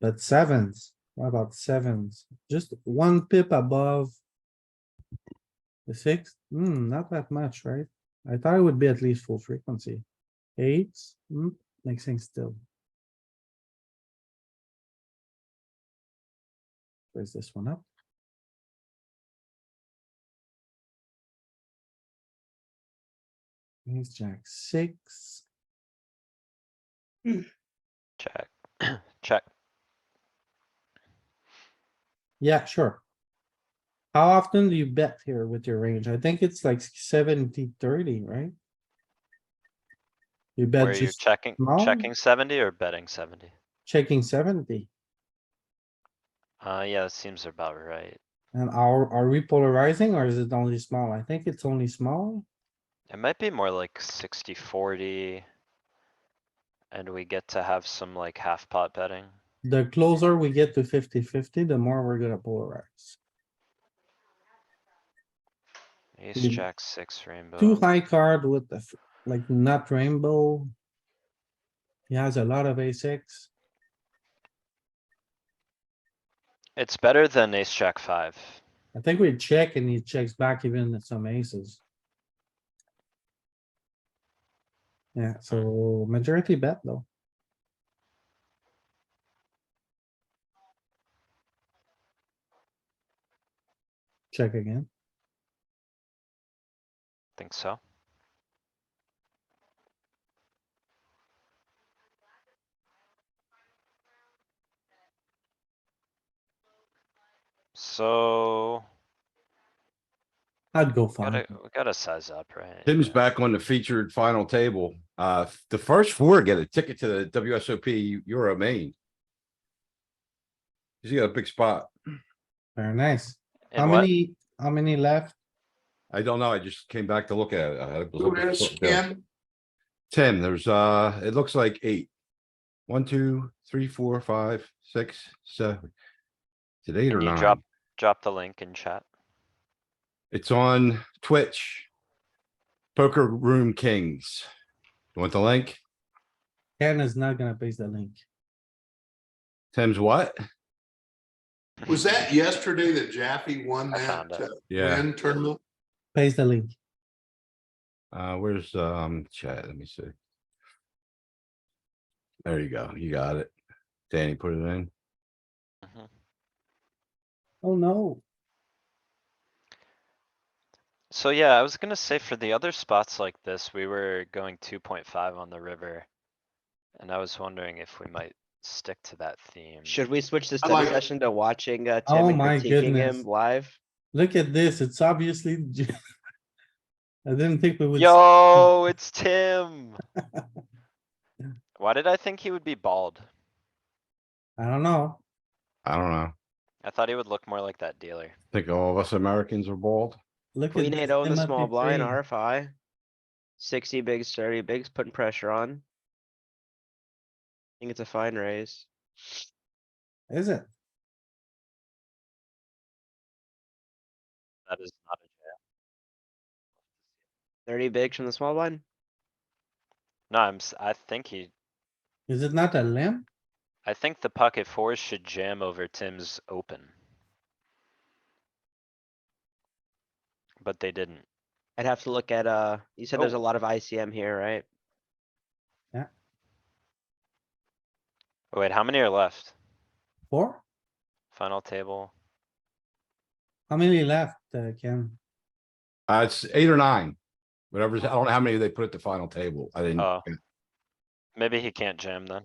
But sevens, what about sevens? Just one pip above. The six, hmm, not that much, right? I thought it would be at least full frequency. Eights, hmm, makes sense still. Raise this one up. Ace jack six. Check, check. Yeah, sure. How often do you bet here with your range? I think it's like 70-30, right? You Where bet you just checking, small? checking seventy or betting seventy? checking seventy. Uh, yeah, that seems about right. And are, are we polarizing or is it only small? I think it's only small. It might be more like 60-40, And we get to have some like half pot betting. The closer we get to 50-50, the more we're gonna polarize. Ace, Mm. jack, six, rainbow. Two high card with the, f- like not rainbow. He has a lot of a six. It's better than ace, jack, five. I think we check and he checks back even some aces. Yeah, so majority bet though. Check again. Think so? So, I'd go five. gotta, we gotta size up, right? Tim's Yeah. back on the featured final table. Uh, the first four get a ticket to the WSOP Euro main. He's got a big spot. Very nice. In How what? many, how many left? I don't know. I just came back to look at it. I had it. was Who looking is something down. Ken? Tim, there's, uh, it looks like eight. One, two, three, four, five, six, seven. Is it eight or Can you nine? drop, drop the link in chat? It's on Twitch. Poker Room Kings. You Want the link? Ken is not gonna paste the link. Tim's what? Was that yesterday that Jaffe won I that found it. uh, Yeah. win tournament? Paste the link. Uh, where's, um, chat? Let me see. There you go. You got it. Danny put it in. Mhm. Oh no, So yeah, I was gonna say for the other spots like this, we were going two point five on the river. And I was wondering if we might stick to that theme. Should we switch the I study like- session to watching uh Oh Tim and my critiquing goodness. him live? look at this. It's obviously. I didn't think we would. Yo, it's Tim. Why did I think he would be bald? I don't know. I don't know. I thought he would look more like that dealer. Think all of us Americans are bald. Look at. Queen this eight O in the Timothy small blind Crane. RFI. Sixty bigs, thirty bigs, putting pressure on. I think it's a fine raise. Is it? That is not a jam. Thirty bigs from the small blind. No, I'm, s- I think he, Is it not a limp? I think the pocket fours should jam over Tim's open. But they didn't. I'd have to look at, uh, you said there's Oh. a lot of ICM here, right? Oh, Wait, how many are left? Four? Final table? How many left, uh, Ken? Uh, it's eight or nine. Whatever's, I don't know how many they put at the final table. I didn't. Oh. Maybe he can't jam then.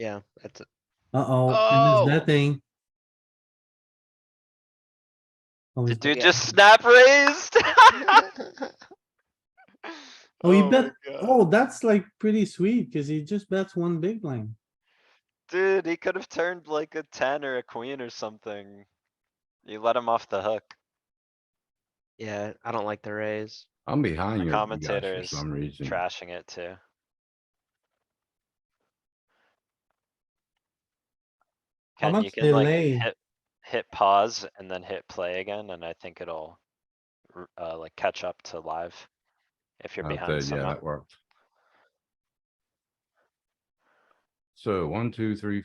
Yeah, that's, Uh-oh, Oh. and it's nothing. Oh, The he's- dude yeah. just snap raised. Oh, he my bet- God. oh, that's like pretty sweet, cuz he just bets one big line. Dude, he could have turned like a ten or a queen or something. You let him off the hook. yeah, I don't like the raise. I'm behind The you. commentator For is some reason. Trashing it too. How Ken, you much can like delay? hit, hit pause and then hit play again, and I think it'll r- uh, like catch up to live. If you're Out there, behind Yeah, somehow. that worked. So one, two, three,